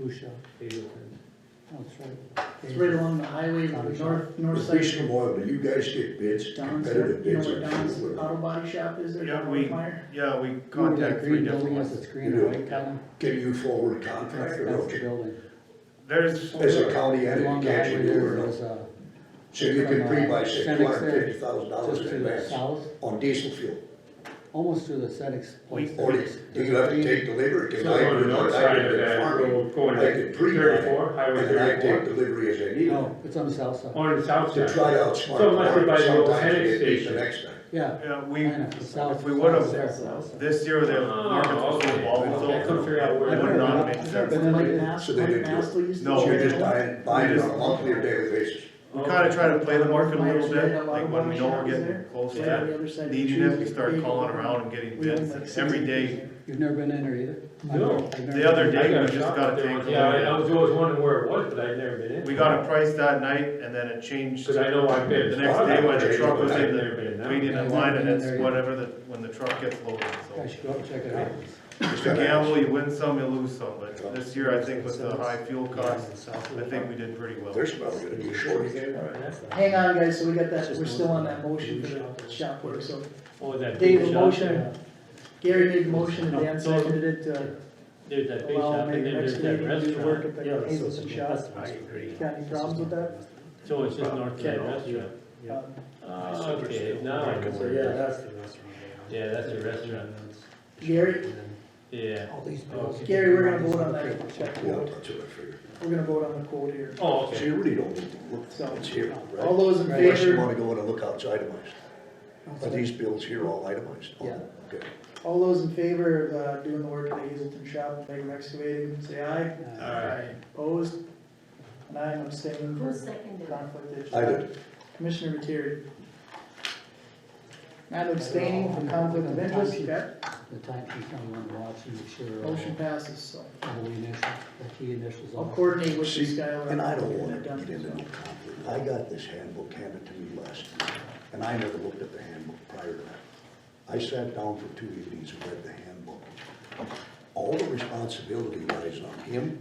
Busha, Hazelton. that's right. It's right along the highway on the north, north With side. Beecham Oil, do you guys get bids, Don's, competitive you know bids? where on Don's fuel? auto body shop is there? Yeah, down we, Fire? yeah, we Remember that green contact three different building ones. has its green You and do. white column? Can you forward a contract That's or that's the okay? building. There's, As a county Along the entity, can't highway you do there, it? or there's not? a, So you can from, uh, pre-buy six Fenix there, hundred fifty thousand dollars just in to the advance south, on diesel fuel, almost to the Senex place. or do There's- do you have to there's a take delivery? Cause So I on the do north not, side I of do that farming, road going I could to pre-buy thirty-four, and Highway then I take thirty-four, delivery as I need green- it, No, it's on the south side, on the south to side. try out smart. So unless you buy the old Sometimes Fenix it beats station. The next time. yeah. yeah, we, I know, the south- if we would've, south side. this year, the Oh, market was so okay. volatile. I couldn't figure out where It I've would never not been- make I've sense. never But been then like like that. Nas, So they like didn't do Nas, it. we used to. No. So do you're that. just buying, buying on a monthly or daily basis. Oh. We kinda try to play the market a little bit, like when we know we're getting close Right on to the other side of needing it, we Cheese, start big calling one. around and getting We own bids like six every acres day. there. You've never been in there either? No. I've never- I've never The other been in. day, I we just shop got a there. tank. Yeah, I I was always wondering where it was, but I've never been in. We got a price that night and then it changed, Cause I know I've been. The next day when the truck was in, I've never been in that. waiting Yeah, in line I've and been it's there. whatever the, when the truck gets loaded, I so. should go up and check it out. It's a gamble, you win some, you lose some, but this year, I think with the high fuel costs, I I think we did pretty well. They're probably gonna be short again. Hang on, guys, so we got that, we're still on that motion for the shop work, so Oh, that big Dave, a shop, motion, yeah. Gary made a motion, and No, Dan no. seconded it uh, to There's that big allow shop and maybe then there's next that meeting to do work restaurant. at the Hazelton shop. I agree. Got any problems with that? So it's just north of that restaurant. Uh, Oh, okay, now I can So, worry. yeah, that's the restaurant. Yeah, that's the restaurant, Gary, yeah. All these bills. Gary, we're gonna vote on that, check Yeah, quote, that's what I figured. we're gonna vote on the quote here. Oh, So okay. you really don't need to look what's here, All right? those in Unless you favor, wanna go in and look outside itemized. Are these bills here all itemized? Yeah. Okay. all those in favor of, uh, doing the work at the Hazelton shop, Megan Excavating, say aye. Uh, Alright. Opposed? And I am abstaining Who for seconded it? conflict of interest. I did, Commissioner Materi. And I'm abstaining from conflict of interest, okay? The time she's on one watch and make sure. uh, Motion passes, so all the initials, the key initials. I'll are- coordinate with you, Skylar. and I don't Get wanna that done. get into no conflict. I got this handbook handed to me last year, and I never looked at the handbook prior to that. I sat down for two evenings and read the handbook. All the responsibility lies on him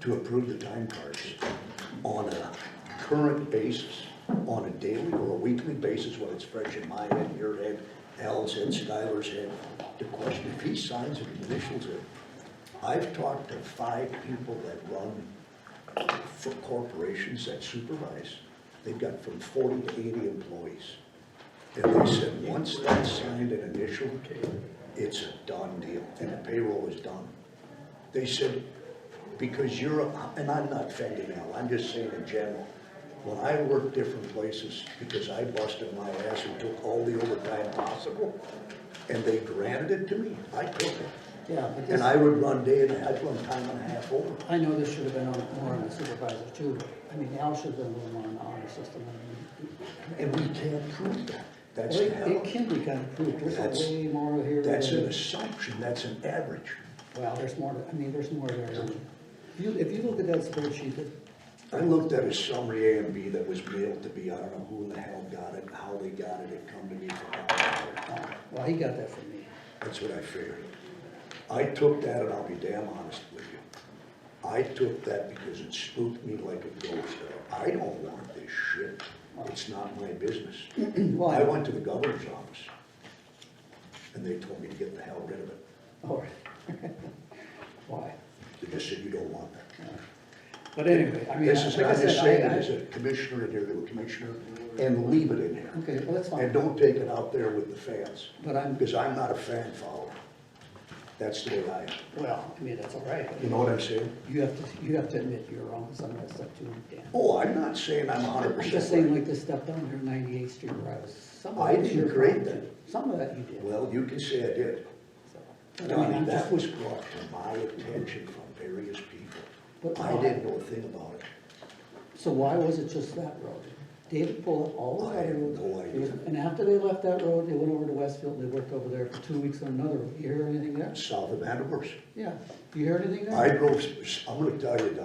to approve the time cards on a current basis, on a daily or a weekly basis, when it's fresh in my head, your head, Al's head, Skylar's head, to question if he signs it, and initials it. I've talked to five people that run for corporations that supervise. They've got from forty to eighty employees. And they said, once that's signed and initialed, it's a done deal, and the payroll is done. They said, because you're, a- and I'm not offending Al, I'm just saying in general, when I worked different places, because I busted my ass and took all the overtime possible, and they granted it to me, I took it. Yeah, but And this, I would run day and, I'd run time and a half over. I know this should have been on, more on the supervisor too, but, I mean, Al should have been a little more on the honor system. I mean, And we can't prove that. That's the It it hell. can be kind of proved, there's That's- a way more here. That's than- an assumption, that's an average. Well, there's more, to- I mean, there's more there. If you, if you look at that spreadsheet, that- I looked at a summary A and B that was mailed to me, I don't know who the hell got it, how they got it, it come to me from out uh, well, he got that from me. That's what I figured. I took that, and I'll be damn honest with you, I took that because it spooked me like a ghost. I don't want this shit, it's not my business. Well, I I- went to the governor's office, and they told me to get the hell rid of it. Oh, Why? They just said, you don't want that. But anyway, I mean, This is, like I I'm just said, saying, I, as I, a commissioner in there, to a commissioner, and leave it in there. okay, well, that's And fine, don't take it out there with the fans, but I'm, because I'm not a fan follower. That's the way I am. well, I mean, that's all right. You know what I'm saying? You have to, you have to admit you're wrong, some of that stuff too, Dan. Oh, I'm not saying I'm hundred I'm just saying percent right. like this stuff down here, ninety-eighth street where I was, some of I it was didn't your create fault, that. too. Some of that you did. Well, you can say I did. so. But I mean, Donnie, I'm that just, was brought to my attention from various people. But I why? didn't know a thing about it. so why was it just that road? David pulled up all the I other have roads. no idea. And after they left that road, they went over to Westfield, and they worked over there for two weeks on another, road. you hear anything there? South of Anniversary. Yeah, you heard anything there? I drove, I'm gonna tell you, Don,